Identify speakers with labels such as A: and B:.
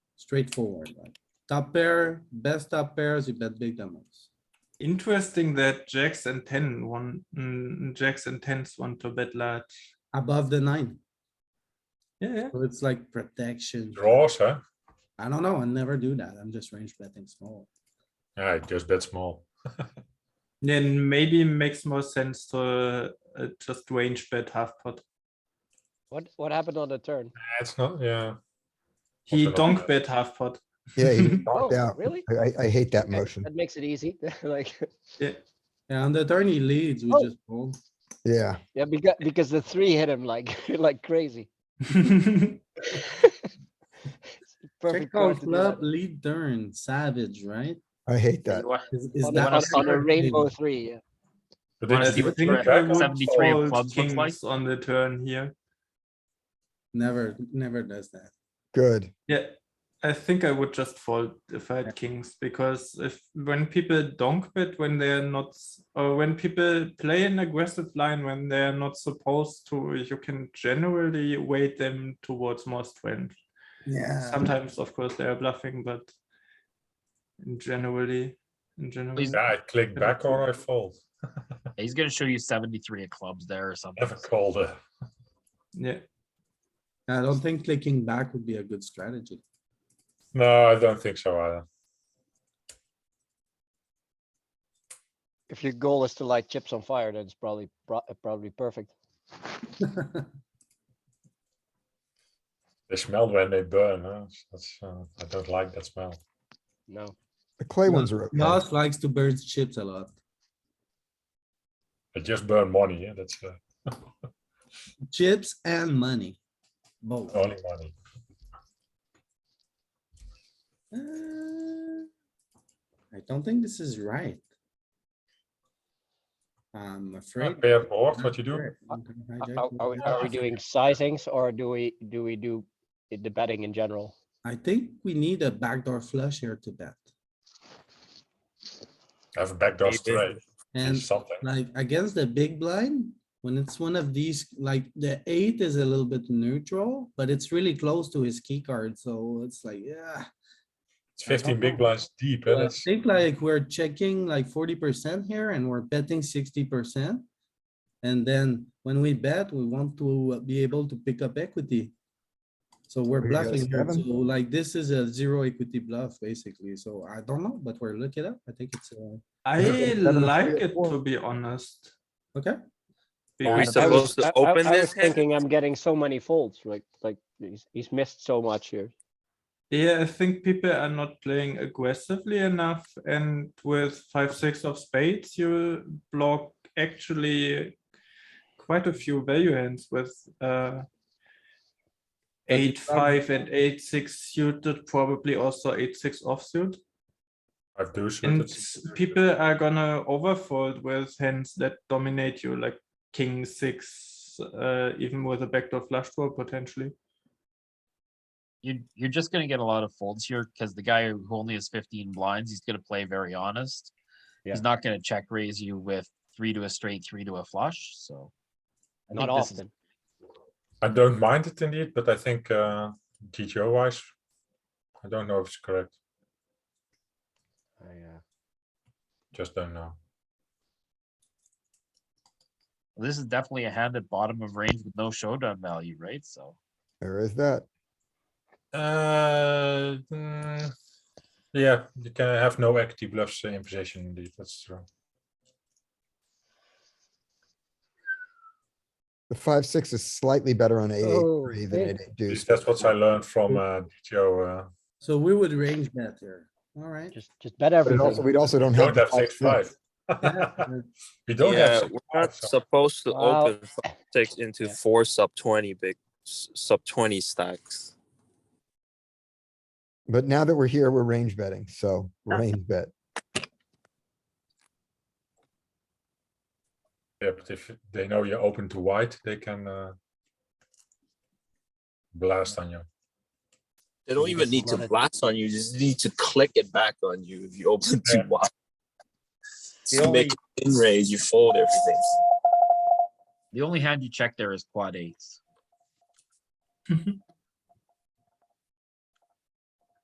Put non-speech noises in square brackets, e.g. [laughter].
A: straightforward, right? Top pair, best top pairs, you bet big demos.
B: Interesting that jacks and ten one mm, jacks and tens want to bet large.
A: Above the nine,
B: Yeah, yeah.
A: so it's like protection.
C: Draws, huh?
A: I don't know, I never do that. I'm just range betting small.
C: Yeah, just bet small.
B: Then maybe makes more sense to uh, just range bet half pot.
D: What, what happened on the turn?
C: Yeah, It's not, yeah.
B: He
C: Also not
B: donk
C: bad.
B: bet half pot.
E: Yeah, he
C: [laughs]
D: Oh,
E: knocked out. [laughs]
D: really?
E: I, I- I hate that
D: Okay,
E: motion.
D: That makes it easy, [laughs] like,
F: [laughs]
A: Yeah, on the turn he leads, we
D: Oh.
A: just fold.
E: Yeah,
D: yeah, because, because the three hit him like, [laughs] like crazy.
A: Check
D: Perfect
A: call
D: card to do
A: club,
D: that.
A: lead turn, savage, right?
E: I hate that.
A: Is, is
D: On a-
A: that?
D: on a- on a
A: fair?
D: rainbow three, yeah.
C: But
B: I
C: did
F: see
C: you
F: what
B: think
C: think
F: the
B: I
C: back
B: would
C: on-
F: 73 of
B: fold
F: clubs looks like?
B: kings on the turn here.
A: [laughs] Never, never does that.
E: Good.
B: Yeah, I think I would just fold if I had kings because if when people donk bet when they're not s- or when people play an aggressive line when they're not supposed to, you can generally weight them towards more strength.
A: Yeah.
B: Sometimes, of course, they are bluffing, but in generally, in general,
F: Please-
C: Yeah, I click back or I fold.
F: He's gonna show you seventy-three of clubs there or something.
C: Never called it.
B: yeah,
A: I don't think clicking back would be a good strategy.
C: No, I don't think so either.
D: If your goal is to light chips on fire, then it's probably, pro- probably perfect.
C: They smell when they burn, huh? That's, uh, I don't like that smell.
D: No,
E: The clay ones are okay.
A: Yoss likes to burn chips a lot.
C: I just burn money, yeah, that's uh,
A: Chips and money. Both.
C: only money.
A: Uh, I don't think this is right. I'm afraid.
C: Pair board, what you do?
A: Correct. I'm gonna hijack
D: are,
A: your
D: are we,
A: idea.
D: are we doing sizings or do we, do we do the betting in general?
A: I think we need a backdoor flush here to bet.
C: Have a backdoor
F: Maybe.
C: straight,
A: And
C: something.
A: like against the big blind, when it's one of these, like the eight is a little bit neutral, but it's really close to his key card, so it's like, yeah.
C: It's fifteen
A: don't
C: big
A: know.
C: blinds deep,
A: So
C: and
A: I
C: that's
A: think like we're checking like forty percent here and we're betting sixty percent. And then when we bet, we want to uh, be able to pick up equity. So we're
E: We got
A: bluffing here,
E: seven.
A: so like this is a zero equity bluff basically, so I don't know, but we're looking up, I think it's, uh,
B: I
E: Seven, three,
B: like
E: or
B: it
E: four.
B: to be honest.
A: okay,
F: Are we
B: because-
D: I was-
F: supposed to
D: I- I-
F: open
D: I was
F: this? hand?
D: Thinking I'm getting so many folds, like, like he's, he's missed so much here.
B: Yeah, I think people are not playing aggressively enough, and with five, six of spades, you block actually quite a few value hands with uh. Eight, five and eight, six suited, probably also eight, six offsuit,
C: five deuce.
B: and
C: that's-
B: s- people are gonna overfold with hands that dominate you, like king, six, uh, even with a backdoor flush draw potentially.
F: You, you're just gonna get a lot of folds here, cause the guy who only has fifteen blinds, he's gonna play very honest. He's not gonna check raise you with three to a straight, three to a flush, so. I
D: Not
F: think this is-
D: often.
C: I don't mind it indeed, but I think uh, GTO wise, I don't know if it's correct.
D: uh,
C: Just don't know.
F: This is definitely a hand at bottom of range with no showdown value, right? So.
E: There is that.
C: Uh, mm, yeah, you can have no equity bluffs in position indeed. That's true.
E: The five, six is slightly better on eight, eight,
D: Oh,
E: three than
D: hey.
E: eight, eight
C: At
E: deuce.
C: least that's what I learned from uh, GTO. Uh,
A: so we would range bet here, alright. [laughs]
D: Just, just bet
E: But it also,
D: everything.
E: we also don't have.
C: don't
E: the
C: have six five. [laughs]
A: uh,
C: we don't have.
G: Yeah,
C: Six,
G: we're
C: five,
G: not
C: so-
G: supposed to
D: Wow.
G: open f- six into four sub twenty big, s- sub twenty stacks.
E: But now that we're here, we're range betting, so range bet.
C: yeah, but if they know you're open to white, they can uh, blast on you.
G: They don't
D: You
G: even
D: just
G: need to
D: run it.
G: blast on you, you just need to click it back on you if you open
C: Yeah.
G: too wide.
F: The
G: To make in raise, you fold everything.
F: The only hand you check there is quad eights.